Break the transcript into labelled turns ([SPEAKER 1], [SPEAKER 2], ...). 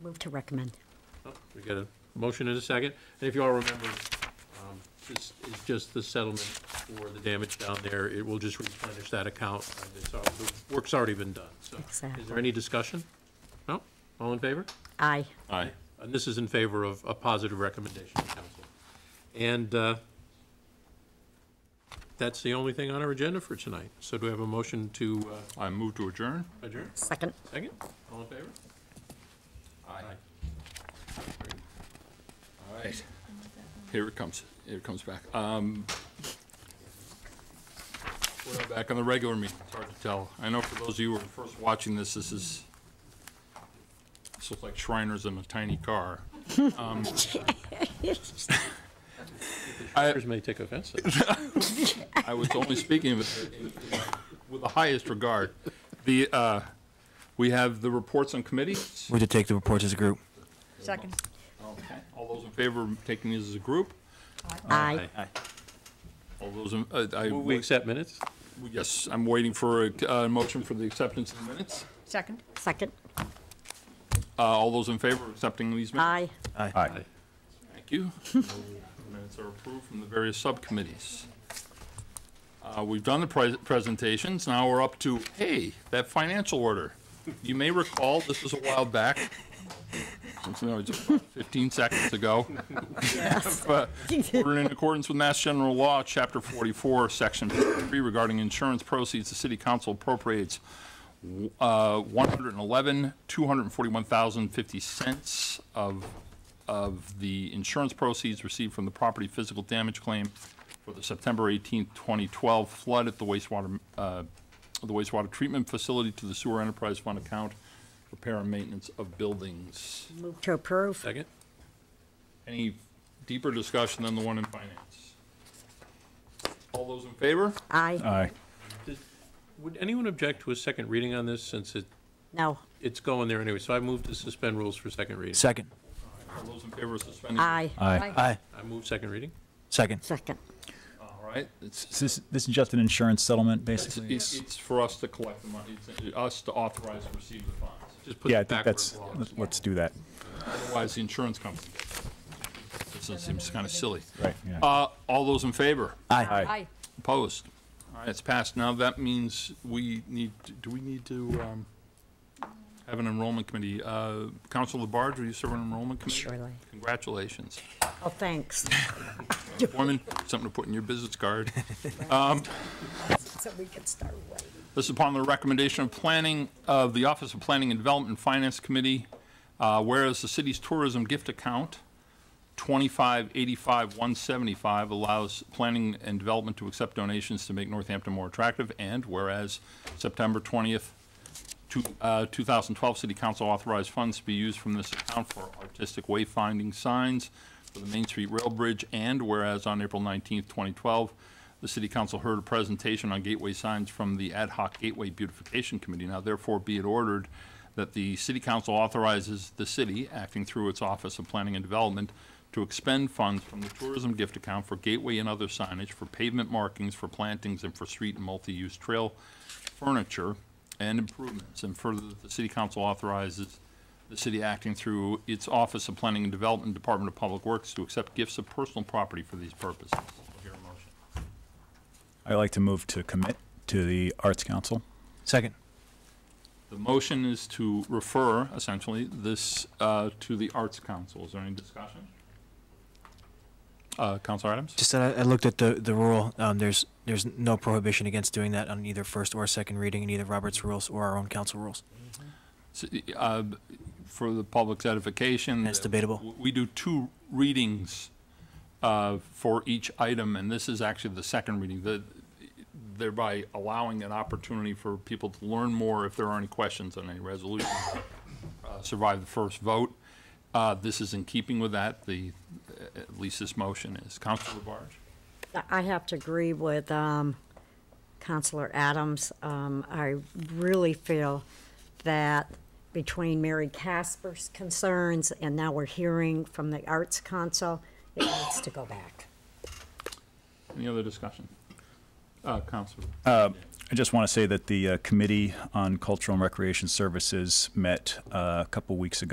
[SPEAKER 1] Move to recommend.
[SPEAKER 2] We get a motion and a second. And if you all remember, um, this is just the settlement for the damage down there. It will just replenish that account. and it's al- The work's already been done, so. Is
[SPEAKER 1] Exactly.
[SPEAKER 2] there any discussion? No? All in favor?
[SPEAKER 1] Aye.
[SPEAKER 3] Aye.
[SPEAKER 2] And this is in favor of a positive recommendation, council. And uh, that's the only thing on our agenda for tonight. So do we have a motion to uh,
[SPEAKER 3] I move to adjourn.
[SPEAKER 2] adjourn?
[SPEAKER 1] Second.
[SPEAKER 2] Second? All in favor? Aye.
[SPEAKER 3] All right. Here it comes. Here it comes back. Um, we're back on the regular meeting. It's hard to tell. I know for those of you who are first watching this, this is, this looks like Shriners in a tiny car.
[SPEAKER 2] Others may take offense. to that.
[SPEAKER 3] I was only speaking with, with the highest regard. The, uh, we have the reports on committees.
[SPEAKER 4] We to take the reports as a group.
[SPEAKER 5] Second.
[SPEAKER 3] All those in favor of taking these as a group?
[SPEAKER 1] Aye.
[SPEAKER 3] All those, in- uh, I.
[SPEAKER 2] We accept minutes?
[SPEAKER 3] Yes, I'm waiting for a uh, motion for the acceptance of the minutes.
[SPEAKER 5] Second.
[SPEAKER 1] Second.
[SPEAKER 3] Uh, All those in favor of accepting these minutes?
[SPEAKER 1] Aye.
[SPEAKER 3] Thank you. Minutes are approved from the various subcommittees. Uh, We've done the pres- presentations, now we're up to, hey, that financial order. You may recall, this was a while back, Since, you know, just about 15 seconds ago. But Ordered in accordance with Mass General Law, Chapter 44, Section 3 regarding insurance proceeds, the city council appropriates uh, 111, 241,050 cents of, of the insurance proceeds received from the property physical damage claim for the September 18th, 2012 flood at the wastewater, uh, the wastewater treatment facility to the sewer enterprise fund account, repair and maintenance of buildings.
[SPEAKER 1] Move to approve.
[SPEAKER 2] Second?
[SPEAKER 3] Any deeper discussion than the one in finance? All those in favor?
[SPEAKER 1] Aye.
[SPEAKER 4] Aye.
[SPEAKER 2] Does- Would anyone object to a second reading on this, since it,
[SPEAKER 1] No.
[SPEAKER 2] it's going there anyway? So I move to suspend rules for second reading.
[SPEAKER 4] Second.
[SPEAKER 3] All those in favor of suspending?
[SPEAKER 1] Aye.
[SPEAKER 5] Aye.
[SPEAKER 4] Aye.
[SPEAKER 2] I move second reading?
[SPEAKER 4] Second.
[SPEAKER 1] Second.
[SPEAKER 3] All right, it's,
[SPEAKER 6] So this, this is just an insurance settlement,
[SPEAKER 3] it's,
[SPEAKER 6] basically? It's-
[SPEAKER 3] it's for us to collect the money, it's uh, us to authorize to receive the funds.
[SPEAKER 2] Just put
[SPEAKER 6] Yeah, I
[SPEAKER 2] it
[SPEAKER 6] think
[SPEAKER 2] backwards.
[SPEAKER 6] that's, let- let's do that,
[SPEAKER 3] Otherwise, the insurance company. gets it. This seems kind of silly.
[SPEAKER 6] right, yeah.
[SPEAKER 3] Uh, all those in favor?
[SPEAKER 4] Aye.
[SPEAKER 5] Aye.
[SPEAKER 3] Opposed? All right, it's passed. Now, that means we need, do we need to, um, have an enrollment committee? Uh, Council Labarge, will you serve on enrollment committee?
[SPEAKER 1] Surely.
[SPEAKER 3] Congratulations.
[SPEAKER 1] Oh, thanks.
[SPEAKER 3] Foreman, something to put in your business card.
[SPEAKER 1] So we can start right.
[SPEAKER 3] This is upon the recommendation of planning, of the Office of Planning and Development and Finance Committee, uh, whereas the city's tourism gift account, 2585-175, allows planning and development to accept donations to make Northampton more attractive, and whereas September 20th, two- uh, 2012, City Council authorized funds to be used from this account for artistic wayfinding signs for the Main Street Rail Bridge, and whereas on April 19th, 2012, the City Council heard a presentation on gateway signs from the Ad hoc Gateway Beautification Committee. Now therefore be it ordered that the City Council authorizes the city, acting through its Office of Planning and Development, to expend funds from the tourism gift account for gateway and other signage, for pavement markings, for plantings, and for street and multi-use trail furniture and improvements. And further, that the city council authorizes the city acting through its Office of Planning and Development, Department of Public Works, to accept gifts of personal property for these purposes. I'll hear a motion.
[SPEAKER 6] I'd like to move to commit to the Arts Council.
[SPEAKER 4] Second.
[SPEAKER 3] The motion is to refer, essentially, this uh, to the Arts Council. Is there any discussion? Uh, Counselor Adams?
[SPEAKER 4] Just that I, I looked at the, the rule. Um, there's, there's no prohibition against doing that on either first or second reading in either Robert's rules or our own council rules.
[SPEAKER 3] S- uh, For the public's edification.
[SPEAKER 4] That's debatable.
[SPEAKER 3] w- We do two readings uh, for each item, and this is actually the second reading, the- thereby allowing an opportunity for people to learn more if there are any questions on any resolution. uh, Survive the first vote. Uh, This is in keeping with that, the, at least this motion is. Counselor Labarge?
[SPEAKER 1] I have to agree with um, Counselor Adams. Um, I really feel that between Mary Casper's concerns and now we're hearing from the Arts Council, it needs to go back.
[SPEAKER 3] Any other discussion? Uh, Counselor?
[SPEAKER 6] I just want to say that the uh, Committee on Cultural and Recreation Services met uh, a couple weeks ago.